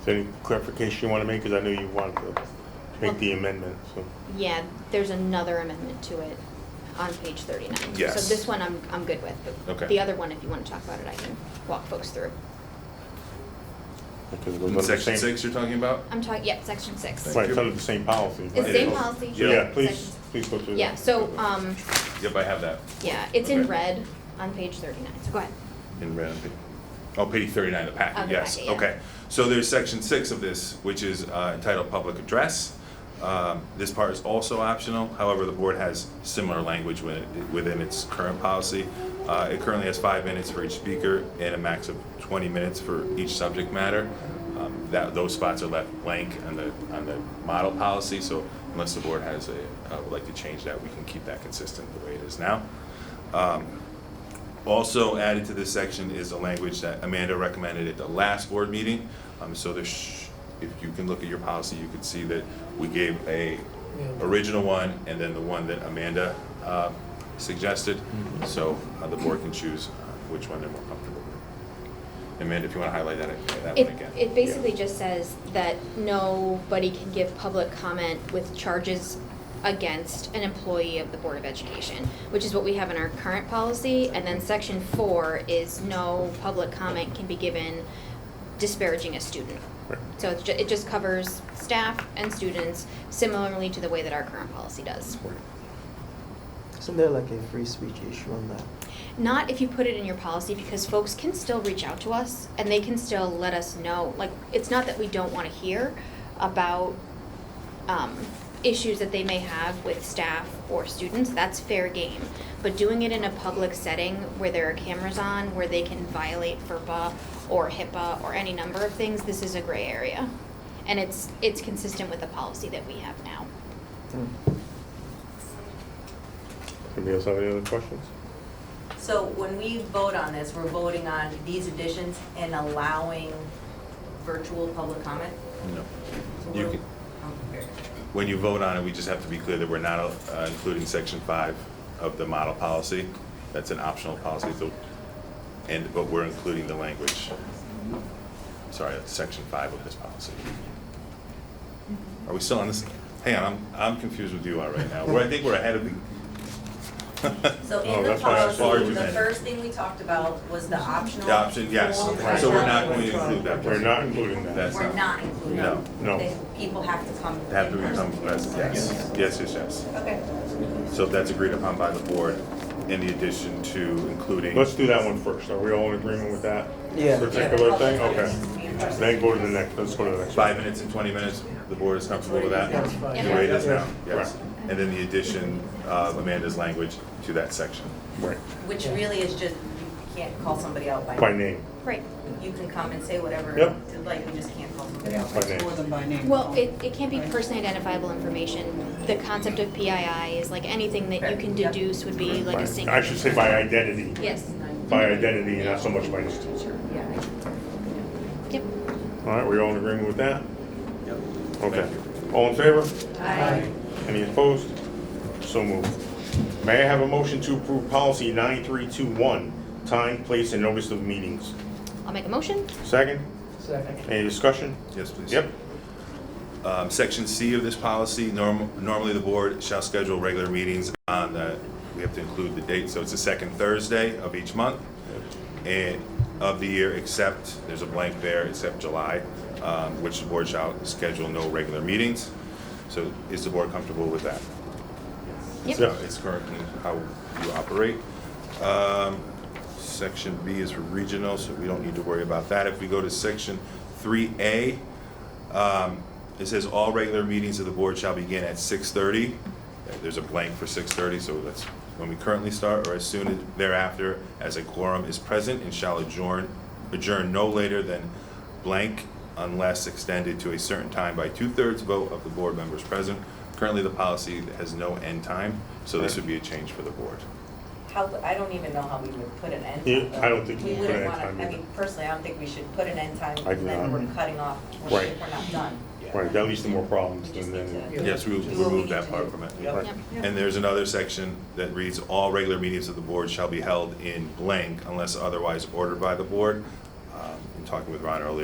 Is there any clarification you want to make? Because I know you wanted to make the amendment, so. Yeah, there's another amendment to it on page thirty-nine. Yes. So this one I'm, I'm good with, Okay. but the other one, if you wanna talk about it, I can walk folks through. because it was In under the same- section six you're talking about? I'm talking, yeah, section six. Right, it's under the same policy. It's the same policy. So, yeah, please, Section- please go through. Yeah, that. so, um, Yep, I have that yeah, it's in Okay. red on page thirty-nine, so go ahead. in red. on pa- Oh, page thirty-nine of Of the packet, the yes, packet, yeah. okay. So there's section six of this, which is uh, entitled Public Address. Um, This part is also optional, however, the board has similar language wi- within its current policy. Uh, It currently has five minutes for each speaker and a max of twenty minutes for each subject matter. Um, That, those spots are left blank on the, on the model policy, so unless the board has a, uh, would like to change that, we can keep that consistent the way it is now. Also added to this section is a language that Amanda recommended at the last board meeting. Um, so there's, if you can look at your policy, you could see that we gave a original one and then the one that Amanda, uh, suggested. So uh, the board can choose uh, which one they're more comfortable with. Amanda, if you wanna highlight that, that It, one again. it basically just says that nobody can give public comment with charges against an employee of the Board of Education, which is what we have in our current policy. And then section four is no public comment can be given disparaging a student. Right. So it's ju- it just covers staff and students similarly to the way that our current policy does. Isn't there like a free speech issue on that? Not if you put it in your policy, because folks can still reach out to us and they can still let us know. Like, it's not that we don't want to hear about um, issues that they may have with staff or students. That's fair game. But doing it in a public setting where there are cameras on, where they can violate FERPA or HIPAA or any number of things, this is a gray area. And it's, it's consistent with the policy that we have now. Hmm. Anybody else have any other questions? So when we vote on this, we're voting on these additions and allowing virtual public comment? No. So You we're- can- I'm confused. When you vote on it, we just have to be clear that we're not uh, including section five of the model policy. That's an optional policy, so, and, but we're including the language. Sorry, that's section five of this policy. Are we still on this? Hang on, I'm, I'm confused with you all right now. We're- I think we're ahead of the. So Oh, in the that's why I was worried policy, you the meant- first thing we talked about was the optional. The option, yes. form Right. So we're not going to electronic. include that. We're not including that. That's We're not. not including. No. it. No. They- People have to come. Have to in person. become, yes, yes, yes, yes. Okay. So if that's agreed upon by the board, in the addition to including. Let's do that one first. Are we all in agreement with that? Yeah. Particular thing, Public comment needs to okay. be in person. Then go to the next, let's go to the next. one. Five minutes and 20 minutes, the board is comfortable with that? That's fine. The way it is now, Yeah. yes. And then the addition of Amanda's language to that section. Right, Which really is just, you can't call somebody out by. by name. Right. You can come and say whatever, Yep. you like you just can't call somebody out. By name. More than by name. Well, it, it can't be personally identifiable information. The concept of PII is like anything that you can deduce would be like By- a single. I should say by identity. Yes, By identity, not so much by distance. Yeah. yep. All right, we all in agreement with that? Yep. Okay. Thank you. All in favor? Aye. Any opposed? So moved. May I have a motion to approve policy 9321, time, place, and notice of meetings? I'll make a motion. Second? Second. Any discussion? Yes, please. Yep. Um, Section C of this policy, norm- normally the board shall schedule regular meetings on the, we have to include the date, so it's the second Thursday of each month and of the year, except, there's a blank there, except July, um, which the board shall schedule no regular meetings. So is the board comfortable with that? Yep. So it's currently how you operate. Um, Section B is for regional, so we don't need to worry about that. If we go to section three A, it says all regular meetings of the board shall begin at six thirty. Uh, There's a blank for six thirty, so that's when we currently start or as soon thereafter as a quorum is present and shall adjourn, adjourn no later than blank unless extended to a certain time by two-thirds vote of the board members present. Currently, the policy has no end time, so this would be a change for the board. How, I don't even know how we would put an end Yeah, time. though. I don't think you We can put an wouldn't end wanna- time I either. mean, personally, I don't think we should put an end time, I do then not. we're cutting off, we're Right. we're not done. Right, that leads to more We problems just than, need to- than, Yes, we Do what will we remove need that to part do. from it. Yep. Yep. And there's another section that reads, "All regular meetings of the board shall be held in blank unless otherwise ordered by the board." Um, In talking with Ron earlier,